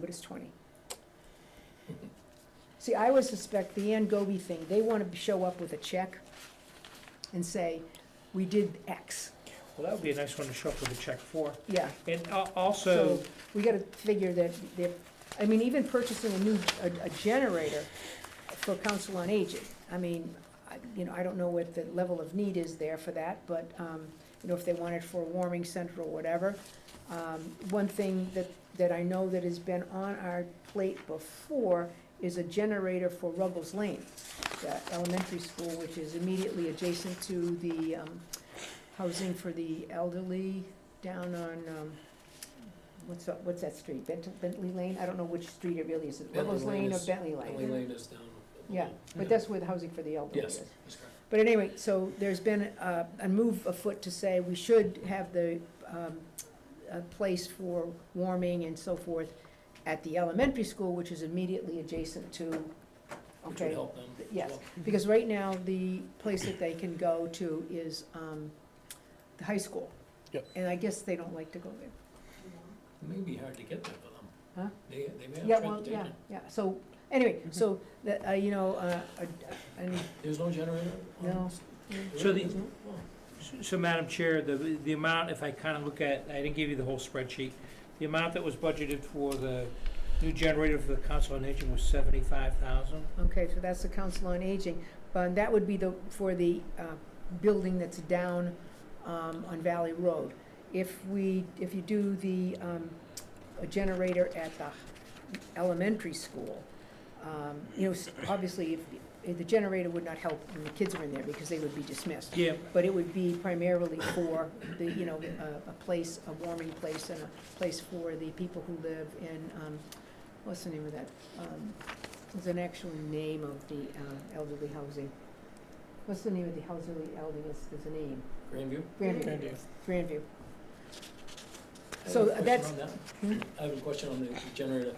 But it's twenty. See, I always suspect the Angobi thing, they want to show up with a check and say, we did X. Well, that would be a nice one to show up with a check for. Yeah, And al- also, so we got to figure that, they're I mean, even purchasing a new, a- a generator for Council on Aging. I mean, I- you know, I don't know what the level of need is there for that, but, um, you know, if they want it for a warming center or whatever. Um, One thing that, that I know that has been on our plate before is a generator for Ruggles Lane, the elementary school, which is immediately adjacent to the um, housing for the elderly down on, um, what's, that- what's that street? Bent- Bentley Lane? I don't know which street it really is. Is it Bentley Ruggles Lane Lane or is- Bentley Emily Lane? Lane is down. Yeah, but that's where the housing for the elderly Yes. is. That's correct. But anyway, so there's been a, a move afoot to say we should have the, um, a place for warming and so forth at the elementary school, which is immediately adjacent to, Which would okay, help them. as yes. well. because right now, the place that they can go to is, um, the high school. Yep. And I guess they don't like to go there. It may be hard to get there for them. Huh? They, they may Yeah, have well, yeah, transportation. yeah, so, anyway, so, that, uh, you know, uh, a- and, There's no generator? on No. Mm-hmm. this? There So the- is, no? Oh. so Madam Chair, the, the amount, if I kind of look at, I didn't give you the whole spreadsheet. The amount that was budgeted for the new generator for the Council on Aging was seventy-five thousand. Okay, so that's the Council on Aging, but that would be the, for the uh, building that's down um, on Valley Road. If we, if you do the um, a generator at the elementary school, um, you know, s- obviously, if- if the generator would not help when the kids are in there because they would be dismissed. Yeah, But it would be primarily for the, you know, a, a place, a warming place and a place for the people who live in, um, what's the name of that? Um, There's an actual name of the um, elderly housing. What's the name of the elderly, elderly, there's- there's a name, Grandview? Grandview, Grandview. I have a So question that's- Hmm? on that. I have a question on the generator,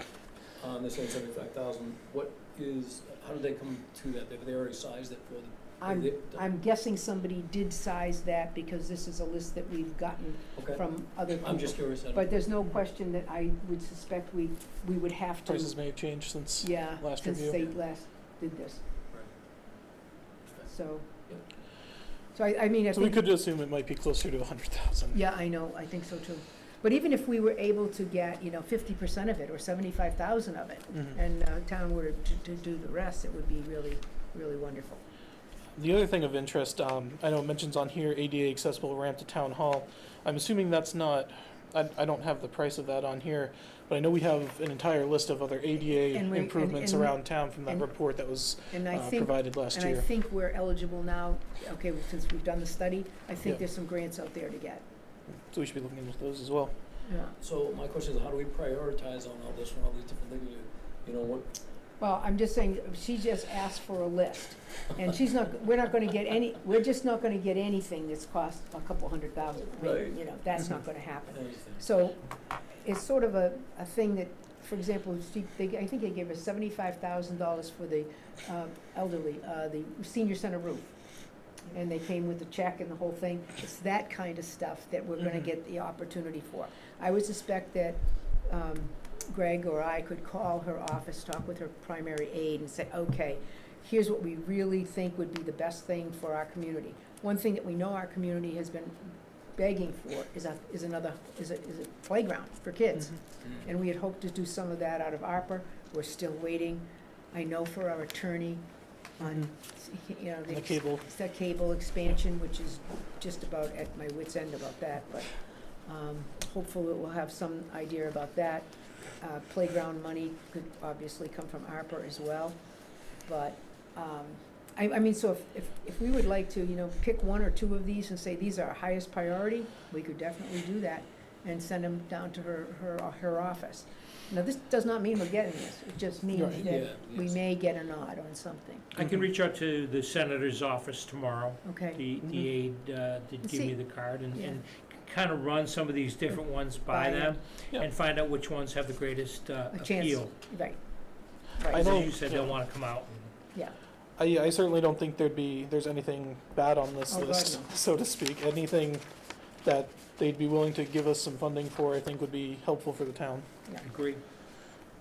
on this one seventy-five thousand. What is, how did they come to that? Have they already sized it for them? Have I'm, they- I'm guessing somebody did size that because this is a list that we've gotten Okay, from other people. I'm just curious. I don't- But there's no question that I would suspect we, we would have to Prices may have changed since. Yeah, last since review. they last did this, so. Yep. So I, I mean, I So we think, could assume it might be closer to a hundred thousand. yeah, I know, I think so too. But even if we were able to get, you know, fifty percent of it or seventy-five thousand of it, Mm-hmm. and uh, town were to, to do the rest, it would be really, really wonderful. The other thing of interest, um, I know it mentions on here ADA accessible ramp to town hall. I'm assuming that's not, I, I don't have the price of that on here, but I know we have an entire list of other ADA And we- and- improvements and- around town from that and- report that was And I uh, think, provided last and I year. think we're eligible now, okay, since we've done the study, I think Yeah. there's some grants out there to get, So we should be looking into those as well. yeah. So my question is, how do we prioritize on all this, and all these different things? You- You know, what, Well, I'm just saying, she just asked for a list, and she's not, we're not gonna get any, we're just not gonna get anything that's cost a couple hundred thousand. I mean, Right. You know, that's not gonna happen. anything. So, it's sort of a, a thing that, for example, she, they, I think they gave us seventy-five thousand dollars for the, uh, elderly, uh, the senior center roof. And they came with the check and the whole thing, it's that kind of stuff that we're gonna Mhm. get the opportunity for. I would suspect that, um, Greg or I could call her office, talk with her primary aide and say, okay, here's what we really think would be the best thing for our community. One thing that we know our community has been begging for is a, is another, is a, is a playground for kids. Mm. And we had hoped to do some of that out of ARPA, we're still waiting. I know for our attorney on, you know, On The the cable, it's that cable expansion, which is just about at my wit's end about that, but um, hopefully we'll have some idea about that. Uh, Playground money could obviously come from ARPA as well, but, um, I, I mean, so if, if, if we would like to, you know, pick one or two of these and say, these are our highest priority, we could definitely do that and send them down to her, her, her office. Now, this does not mean we're getting this, it just means Right. that Yeah, we yes. may get a nod on something, I can Mhm. reach out to the Senator's office tomorrow. okay? Mm-hmm. The, Mhm. the aide uh, did give See- me the card and, Yeah. and kind of run some of these different ones by By them. them Yeah. and find out which ones have the greatest uh, A chance. appeal. Right. I Right. So know- you said they'll yeah. want to come out. Yeah, I, I certainly don't think there'd be, there's anything bad on this Oh, God, list, no. so to speak. Anything that they'd be willing to give us some funding for, I think would be helpful for the town. Agree.